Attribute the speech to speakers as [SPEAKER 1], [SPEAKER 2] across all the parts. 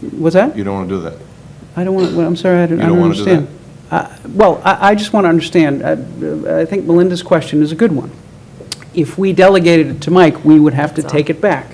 [SPEAKER 1] What's that?
[SPEAKER 2] You don't want to do that.
[SPEAKER 1] I don't want, well, I'm sorry, I don't
[SPEAKER 2] You
[SPEAKER 1] I
[SPEAKER 2] don't
[SPEAKER 1] don't
[SPEAKER 2] wanna do
[SPEAKER 1] understand. Uh, Well, I I just want to understand, uh, I I think Melinda's question is a good one. If we delegated it to Mike, we would have to
[SPEAKER 3] That's all.
[SPEAKER 1] take it back,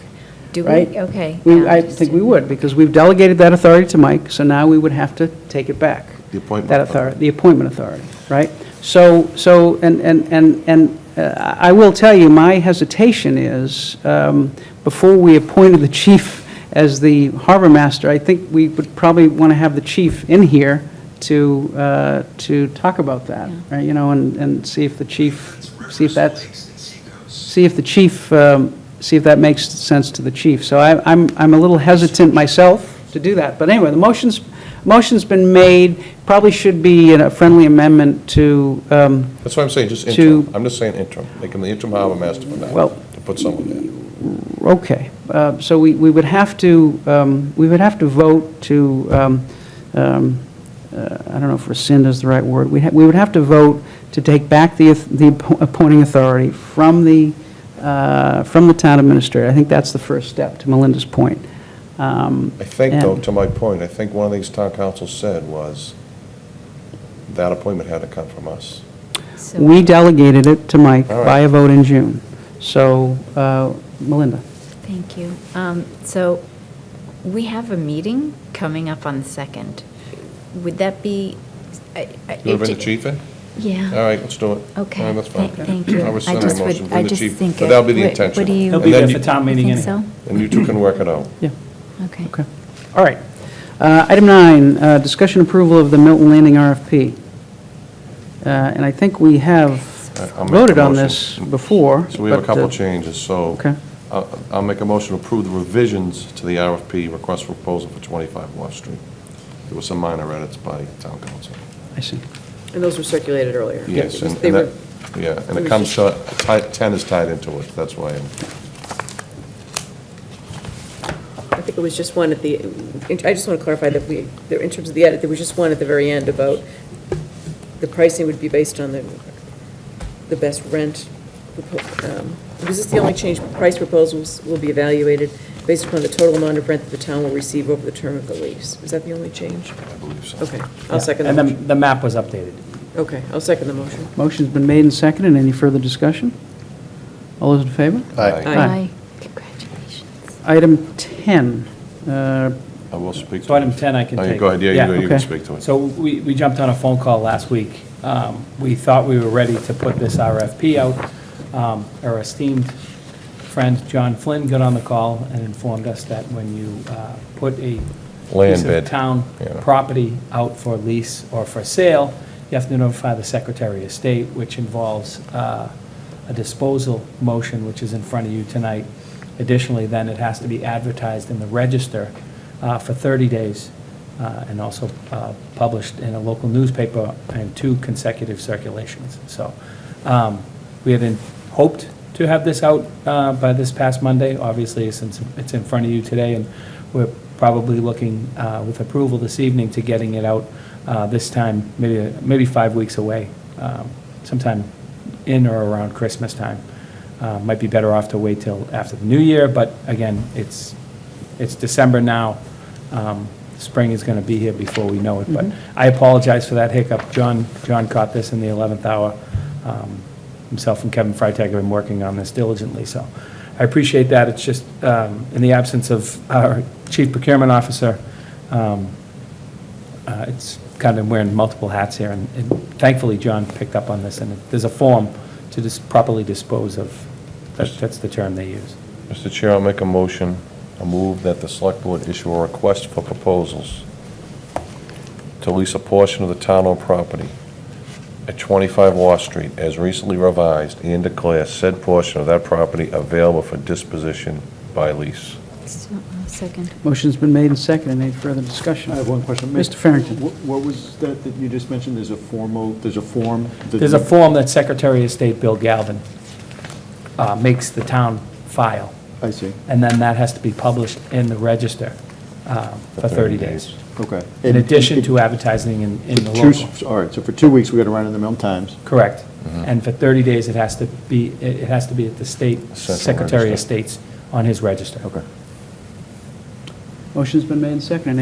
[SPEAKER 3] Do we?
[SPEAKER 1] right?
[SPEAKER 3] Okay.
[SPEAKER 1] We-
[SPEAKER 3] yeah,
[SPEAKER 1] I
[SPEAKER 3] just
[SPEAKER 1] think
[SPEAKER 3] didn't-
[SPEAKER 1] we would, because we've delegated that authority to Mike, so now we would have to take it back.
[SPEAKER 2] The appointment
[SPEAKER 1] That
[SPEAKER 2] authority.
[SPEAKER 1] authority, the appointment authority, right? So, so, and, and, and and uh, I will tell you, my hesitation is, um, before we appointed the chief as the harbor master, I think we would probably want to have the chief in here to, uh, to talk about that, right? You know, and, and see if the chief, see if that's see if the chief, um, see if that makes sense to the chief. So I- I'm, I'm a little hesitant myself to do that. But anyway, the motion's, motion's been made, probably should be in a friendly amendment to, um,
[SPEAKER 2] That's what I'm saying, just
[SPEAKER 1] To-
[SPEAKER 2] interim. I'm just saying interim. Make him the interim harbor master for now,
[SPEAKER 1] Well-
[SPEAKER 2] to put someone in.
[SPEAKER 1] okay. Uh, So we, we would have to, um, we would have to vote to, um, um, uh, I don't know if rescind is the right word. We ha- we would have to vote to take back the, auth- the appo- appointing authority from the, uh, from the town administrator. I think that's the first step, to Melinda's point. Um,
[SPEAKER 2] I think, though,
[SPEAKER 1] and-
[SPEAKER 2] to my point, I think one of these town council said was that appointment had to come from us.
[SPEAKER 3] so-
[SPEAKER 1] We delegated it to Mike
[SPEAKER 2] All right.
[SPEAKER 1] by a vote in June. So, uh, Melinda,
[SPEAKER 3] Thank you. Um, So we have a meeting coming up on the 2nd. Would that be? I- I-
[SPEAKER 2] You want
[SPEAKER 3] it
[SPEAKER 2] to bring the
[SPEAKER 3] ju-
[SPEAKER 2] chief in?
[SPEAKER 3] Yeah.
[SPEAKER 2] All right, let's do it.
[SPEAKER 3] Okay.
[SPEAKER 2] All right, that's fine.
[SPEAKER 3] Thank- Thank you.
[SPEAKER 2] I rescind my
[SPEAKER 3] just would-
[SPEAKER 2] motion.
[SPEAKER 3] I
[SPEAKER 2] Bring the
[SPEAKER 3] just
[SPEAKER 2] chief.
[SPEAKER 3] think
[SPEAKER 2] But
[SPEAKER 3] it-
[SPEAKER 2] that'll be the
[SPEAKER 3] what-
[SPEAKER 2] intention.
[SPEAKER 3] What do you?
[SPEAKER 4] He'll
[SPEAKER 2] And
[SPEAKER 4] be
[SPEAKER 2] then
[SPEAKER 4] there
[SPEAKER 2] you-
[SPEAKER 4] for town meeting
[SPEAKER 3] think
[SPEAKER 4] anyway.
[SPEAKER 3] so?
[SPEAKER 2] And you two can work it out.
[SPEAKER 1] yeah,
[SPEAKER 3] Okay.
[SPEAKER 1] okay. All right. Uh, Item nine, uh, discussion approval of the Milton Landing RFP. Uh, And I think we have
[SPEAKER 2] I- I'll make
[SPEAKER 1] voted
[SPEAKER 2] the
[SPEAKER 1] on
[SPEAKER 2] motion.
[SPEAKER 1] this before.
[SPEAKER 2] So we have a
[SPEAKER 1] but,
[SPEAKER 2] couple
[SPEAKER 1] uh,
[SPEAKER 2] changes, so.
[SPEAKER 1] Okay.
[SPEAKER 2] I'll I'll make a motion to approve the revisions to the RFP request for proposal for 25 Wharf Street. There were some minor edits by town council.
[SPEAKER 1] I see.
[SPEAKER 5] And those were circulated earlier.
[SPEAKER 2] Yes, and
[SPEAKER 5] They
[SPEAKER 2] and that,
[SPEAKER 5] were,
[SPEAKER 2] yeah, and
[SPEAKER 5] it
[SPEAKER 2] it
[SPEAKER 5] was
[SPEAKER 2] comes to, ti- 10 is tied into it, that's why. I'm-
[SPEAKER 5] I think it was just one at the, I just want to clarify that we, there- in terms of the edit, there was just one at the very end about the pricing would be based on the, the best rent. propo- um, Because it's the only change, price proposals will be evaluated based upon the total amount of rent that the town will receive over the term of the lease. Is that the only change?
[SPEAKER 2] I believe so.
[SPEAKER 5] Okay, I'll second the
[SPEAKER 4] And
[SPEAKER 5] motion.
[SPEAKER 4] then the map was updated.
[SPEAKER 5] Okay, I'll second the motion.
[SPEAKER 1] Motion's been made and seconded. Any further discussion? All those in favor?
[SPEAKER 2] I
[SPEAKER 5] Aye.
[SPEAKER 3] Aye. Congratulations.
[SPEAKER 1] Item 10, uh,
[SPEAKER 2] I will speak.
[SPEAKER 4] So item 10 I can
[SPEAKER 2] Oh, you
[SPEAKER 4] take.
[SPEAKER 2] Go ahead, yeah, you
[SPEAKER 4] Yeah,
[SPEAKER 2] go- you can
[SPEAKER 1] okay.
[SPEAKER 2] speak to it.
[SPEAKER 4] So we, we jumped on a phone call last week. Um, We thought we were ready to put this RFP out. Um, Our esteemed friend John Flynn got on the call and informed us that when you uh, put a
[SPEAKER 2] Land
[SPEAKER 4] piece
[SPEAKER 2] bid,
[SPEAKER 4] of town
[SPEAKER 2] yeah.
[SPEAKER 4] property out for lease or for sale, you have to notify the Secretary of State, which involves uh, a disposal motion, which is in front of you tonight. Additionally, then it has to be advertised in the register uh, for 30 days uh, and also uh, published in a local newspaper in two consecutive circulations. So um, we had in- hoped to have this out uh, by this past Monday, obviously, since it's in front of you today, and we're probably looking uh, with approval this evening to getting it out uh, this time, maybe, maybe five weeks away, um, sometime in or around Christmas time. Uh, Might be better off to wait till after the new year, but again, it's, it's December now. Um, Spring is going to be here before we know it, but I apologize for that hiccup. John, John caught this in the 11th hour. Um, Himself and Kevin Freitag have been working on this diligently, so I appreciate that. It's just, um, in the absence of our chief procurement officer, um, uh, it's kind of wearing multiple hats here, and and thankfully, John picked up on this, and there's a form to just properly dispose of, That- that's the term they use.
[SPEAKER 2] Mr. Chair, I'll make a motion, a move that the select board issue a request for proposals to lease a portion of the town-owned property at 25 Wall Street as recently revised and declare said portion of that property available for disposition by lease.
[SPEAKER 3] So, uh, Second.
[SPEAKER 1] motion's been made and seconded. Any further discussion?
[SPEAKER 6] I have one question.
[SPEAKER 1] Mr. Farrington.
[SPEAKER 6] Wh- What was that that you just mentioned? There's a formal, there's a form? that-
[SPEAKER 4] There's a form that Secretary of State Bill Galvin uh, makes the town file,
[SPEAKER 6] I see,
[SPEAKER 4] and then that has to be published in the register um, for 30 days.
[SPEAKER 6] okay.
[SPEAKER 4] In addition to advertising in in the
[SPEAKER 6] Two
[SPEAKER 4] local.
[SPEAKER 6] s- All right, so for two weeks, we got to run in the Milton Times.
[SPEAKER 4] Correct.
[SPEAKER 2] Mm-hmm.
[SPEAKER 4] And for 30 days, it has to be, it it has to be at the state
[SPEAKER 2] Central
[SPEAKER 4] Secretary of
[SPEAKER 2] Register.
[SPEAKER 4] State's on his register. Okay.
[SPEAKER 1] Motion's been made and seconded.